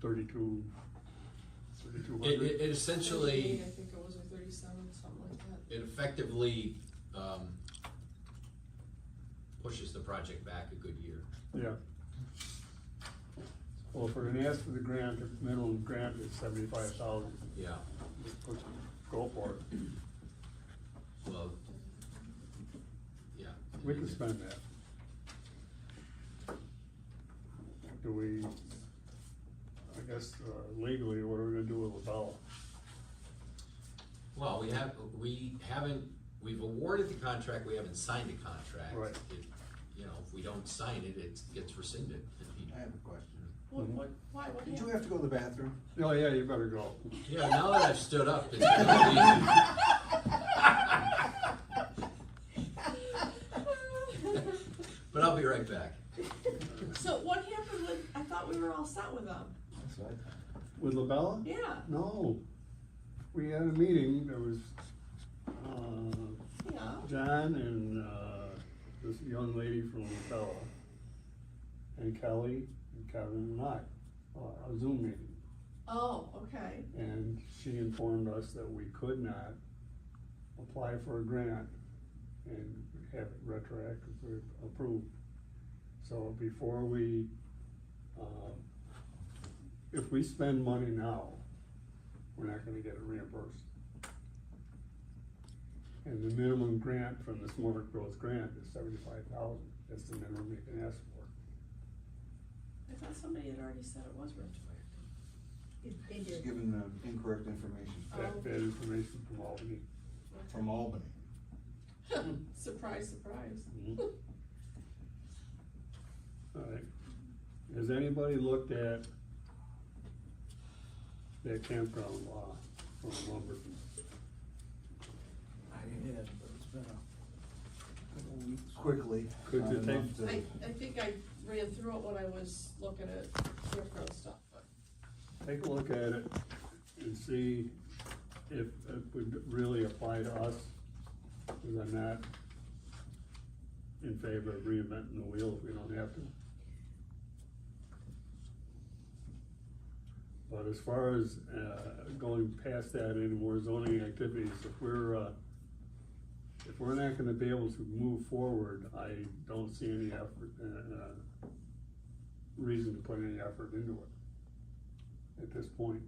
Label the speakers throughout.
Speaker 1: thirty-two, thirty-two
Speaker 2: It,
Speaker 1: hundred?
Speaker 2: it, it essentially,
Speaker 3: 38, I think it was, or thirty-seven, something like that.
Speaker 2: it effectively, um, pushes the project back a good year.
Speaker 1: Yeah. Well, if we're gonna ask for the grant, the minimum grant is seventy-five thousand,
Speaker 2: Yeah,
Speaker 1: go for it,
Speaker 2: well, yeah.
Speaker 1: we can spend that. Do we, I guess uh, legally, what are we gonna do with LaBella?
Speaker 2: Well, we have, we haven't, we've awarded the contract, we haven't signed the contract.
Speaker 1: Right.
Speaker 2: It- You know, if we don't sign it, it gets rescinded.
Speaker 4: I have a question.
Speaker 3: What, what, why, what
Speaker 4: Did you have to go to the bathroom?
Speaker 1: Oh, yeah, you better go.
Speaker 2: Yeah, now that I've stood up, it's been easy. But I'll be right back.
Speaker 3: So what happened with, I thought we were all set with them,
Speaker 4: That's what I thought.
Speaker 1: With LaBella?
Speaker 3: yeah,
Speaker 1: No, we had a meeting, there was, uh,
Speaker 3: yeah.
Speaker 1: John and uh, this young lady from Bella, and Kelly, and Kevin, and I, uh, a Zoom meeting.
Speaker 3: Oh, okay,
Speaker 1: And she informed us that we could not apply for a grant and have it retroactively approved. So before we, um, if we spend money now, we're not gonna get it reimbursed. And the minimum grant from the Smart Growth Grant is seventy-five thousand, that's the minimum you can ask for.
Speaker 3: I thought somebody had already said it was retroactive.
Speaker 5: They
Speaker 4: Just
Speaker 5: did.
Speaker 4: given the incorrect information
Speaker 1: That, that information from Albany.
Speaker 4: from Albany.
Speaker 3: Surprise, surprise.
Speaker 1: All right, has anybody looked at that campground law from Lumberton?
Speaker 4: I did, but it's been a couple weeks. Quickly.
Speaker 1: Could you
Speaker 4: not enough
Speaker 1: take-
Speaker 3: I,
Speaker 4: to-
Speaker 3: I think I ran through it when I was looking at Rickrow stuff, but.
Speaker 1: Take a look at it and see if it would really apply to us, because I'm not in favor of reinventing the wheel if we don't have to. But as far as, uh, going past that any more zoning activities, if we're, uh, if we're not gonna be able to move forward, I don't see any effort, uh, uh, reason to put any effort into it at this point.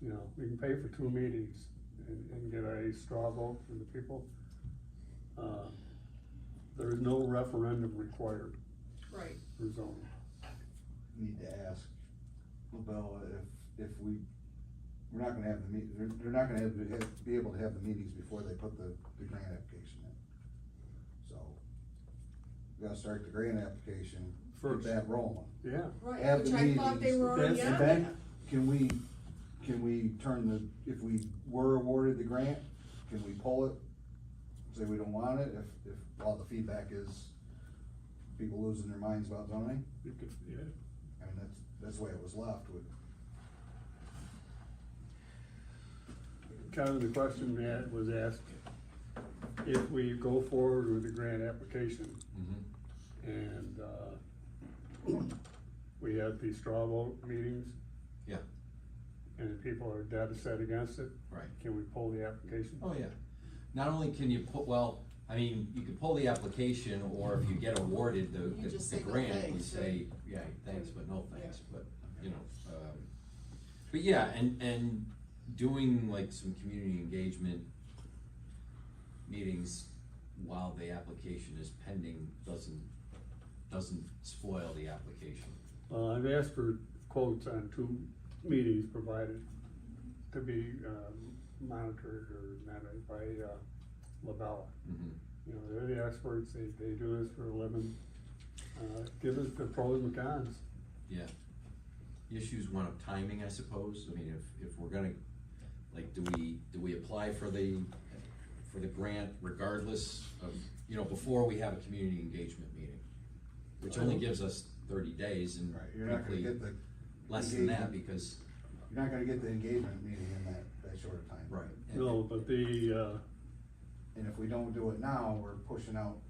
Speaker 1: You know, we can pay for two meetings and, and get a straw vote from the people. Uh, There is no referendum required
Speaker 3: Right.
Speaker 1: for zoning.
Speaker 4: Need to ask LaBella if, if we, we're not gonna have the meet, they're, they're not gonna have, to have- be able to have the meetings before they put the, the grant application in. So, we gotta start the grant application, get
Speaker 1: First.
Speaker 4: that rolling.
Speaker 1: Yeah,
Speaker 3: Right,
Speaker 4: Have
Speaker 3: which
Speaker 4: the
Speaker 3: I thought they
Speaker 4: meetings.
Speaker 3: were already
Speaker 1: That's-
Speaker 3: on
Speaker 4: Okay.
Speaker 3: that.
Speaker 4: Can we, can we turn the, if we were awarded the grant, can we pull it? Say we don't want it, if, if all the feedback is people losing their minds about zoning?
Speaker 1: you could, yeah,
Speaker 4: I mean, that's, that's the way it was left with,
Speaker 1: kind of the question that was asked, if we go forward with the grant application, And, uh, we had the straw vote meetings.
Speaker 2: Yeah.
Speaker 1: And if people are dead set against it,
Speaker 6: Right.
Speaker 1: can we pull the application?
Speaker 6: Oh, yeah. Not only can you pull, well, I mean, you can pull the application, or if you get awarded
Speaker 3: You
Speaker 6: the, the-
Speaker 3: just
Speaker 6: the
Speaker 3: say no
Speaker 6: grant, you
Speaker 3: thanks,
Speaker 6: say, yeah, thanks, but no thanks, but, you know, um. But yeah, and, and doing like some community engagement meetings while the application is pending doesn't, doesn't spoil the application.
Speaker 1: Uh, I've asked for quotes on two meetings provided to be, um, monitored or managed by, uh, Labella.
Speaker 6: Mhm.
Speaker 1: You know, they're the experts, they, they do this for a living. Uh, give us the pros and cons.
Speaker 6: Yeah. Issues one of timing, I suppose, I mean, if, if we're gonna, like, do we, do we apply for the, for the grant regardless of, you know, before we have a community engagement meeting? Which only gives us thirty days and
Speaker 4: right, you're not gonna
Speaker 6: frankly,
Speaker 4: get the,
Speaker 6: less than that
Speaker 4: engagement.
Speaker 6: because,
Speaker 4: you're not gonna get the engagement meeting in that, that short of time.
Speaker 6: right. and-
Speaker 1: No, but the, uh,
Speaker 4: And if we don't do it now, we're pushing out